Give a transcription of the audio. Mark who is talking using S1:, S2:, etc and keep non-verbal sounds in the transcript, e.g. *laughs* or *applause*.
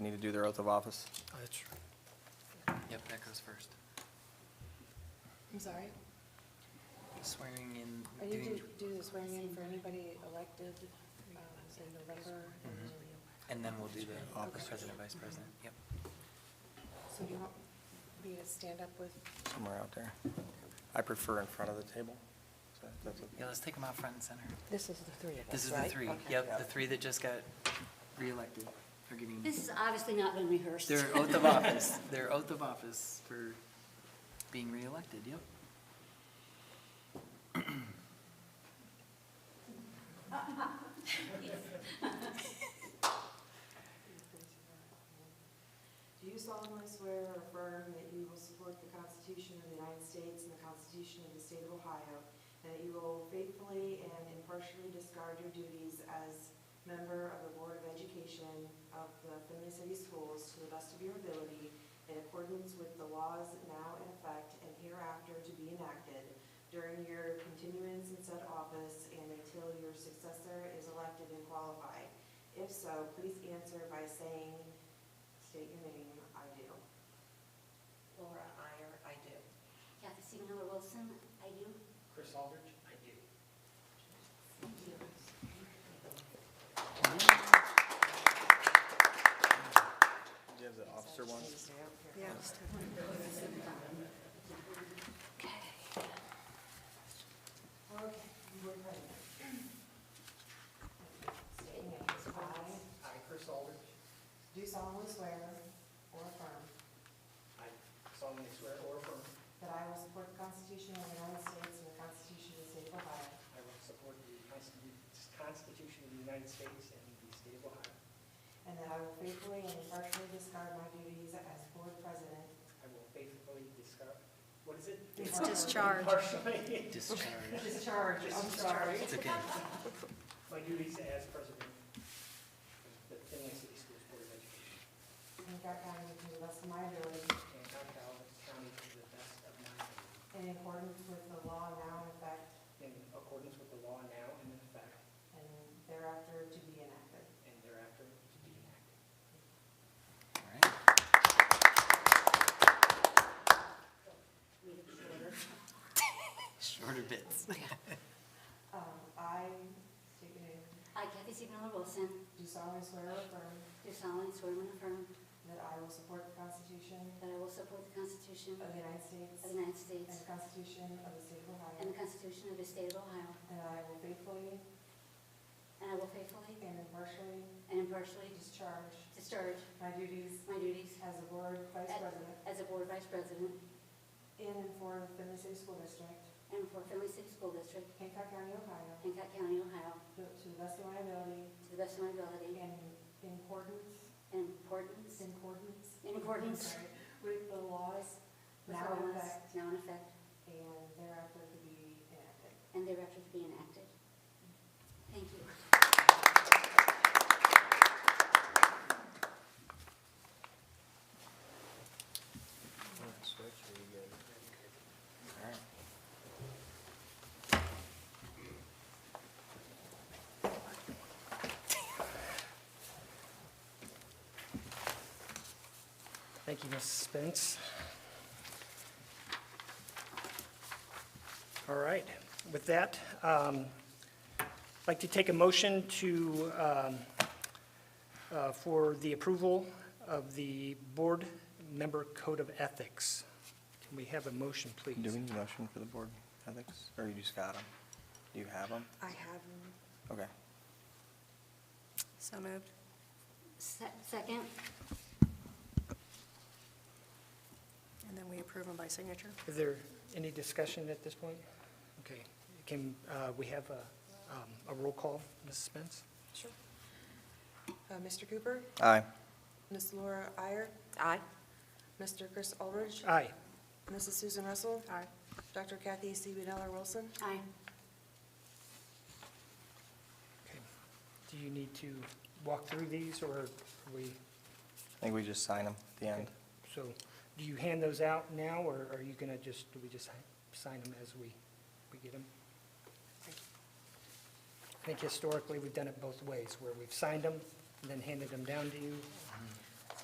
S1: do their oath of office?
S2: That's right.
S3: Yep, that goes first.
S4: I'm sorry,
S3: Swearing
S4: are
S3: in,
S4: you
S3: doing,
S4: do, do the swearing in for anybody elected, um, in November?
S3: Mhm. and then we'll do the office
S4: Okay.
S3: president, vice president.
S5: Mm-hmm.
S3: Yep.
S4: So do you want me to stand up with,
S1: Somewhere out there. I prefer in front of the table. so if that's okay.
S3: Yeah, let's take them out front and center.
S5: This is the three of us,
S3: This is the
S5: right?
S3: three,
S5: Okay.
S3: yep, the three that just got reelected are getting
S6: This has obviously not been rehearsed. *laughs*
S3: their oath of office, their oath of office for being reelected, yep.
S7: Do you solemnly swear or affirm that you will support the Constitution of the United States and the Constitution of the State of Ohio, and that you will faithfully and impartially discard your duties as member of the Board of Education of the Finley City Schools to the best of your ability in accordance with the laws now in effect and hereafter to be enacted during your continuance in said office and until your successor is elected and qualified? If so, please answer by saying State your name, I do. Laura Iyer, I do.
S6: Kathy Siegenthaler Wilson, I do. Chris Aldridge, I do.
S1: Do you have the officer one?
S4: yeah,
S7: Okay, you were ready. State your names.
S8: I,
S7: I
S8: Chris Aldridge,
S7: do solemnly swear or affirm
S8: I solemnly swear or affirm
S7: that I will support the Constitution of the United States and the Constitution of the State of Ohio,
S8: I will support the Constitu- Constitution of the United States and the state of Ohio.
S7: and that I will faithfully and impartially discard my duties as board president.
S8: I will faithfully discuss, what is it?
S7: It's
S8: discharge.
S3: Discharge.
S7: *laughs* Discharge, I'm sorry.
S3: It's
S5: *laughs*
S3: okay.
S8: *laughs* My duties as president of the Finley City Schools Board of Education
S7: In Cook County to the best of my ability
S8: and Cook County to the best of my ability.
S7: in accordance with the law now in effect
S8: In accordance with the law now and in effect
S7: and thereafter to be enacted.
S8: and thereafter to be enacted.
S3: All right.
S6: Read it shorter.
S3: Shorter bits.
S7: Um, I, state your name,
S6: I, Kathy Siegenthaler Wilson,
S7: do solemnly swear or affirm
S6: do solemnly swear and affirm
S7: that I will support the Constitution
S6: that I will support the Constitution
S7: of the
S6: of
S7: United
S6: the
S7: States and
S6: United States
S7: the Constitution of the State of
S6: and
S7: Ohio,
S6: the Constitution of the State of Ohio,
S7: and that I will faithfully
S6: and I will faithfully
S7: and impartially
S6: and impartially
S7: discharge
S6: discharge
S7: my duties
S6: my duties
S7: as a board vice president
S6: as a board vice president
S7: in and for the Finley City School District,
S6: and for Finley City School District,
S7: Hancock County, Ohio,
S6: Hancock County, Ohio,
S7: to to the best of my ability
S6: to the best of my ability
S7: and in accordance,
S6: and importance,
S7: in accordance
S6: in accordance
S7: sorry, with the laws
S6: with
S7: now
S6: all
S7: in
S6: laws
S7: effect
S6: now in effect
S7: and thereafter to be enacted.
S6: and thereafter to be enacted. Thank you.
S2: Thank you, Mrs. Spence. All right, with that, um, I'd like to take a motion to, um, uh, for the approval of the board member code of ethics. Can we have a motion, please?
S1: Do we need a motion for the board ethics, or you just got them? Do you have them?
S4: I have, them.
S1: Okay.
S4: so moved.
S6: Se- Second,
S4: And then we approve them by signature.
S2: Is there any discussion at this point? Okay, can, uh, we have a, um, a roll call, Mrs. Spence?
S4: Sure. Uh, Mr. Cooper?
S1: Aye.
S4: Miss Laura Iyer? Aye. Mr. Chris Aldridge?
S2: Aye.
S4: Mrs. Susan Russell? Aye. Dr. Kathy C. Benella Wilson?
S6: aye.
S2: Okay. Do you need to walk through these, or are we,
S1: I think we just sign them at the end.
S2: so, do you hand those out now, or are you gonna just, do we just sign them as we, we get them? I think historically, we've done it both ways, where we've signed them and then handed them down to you.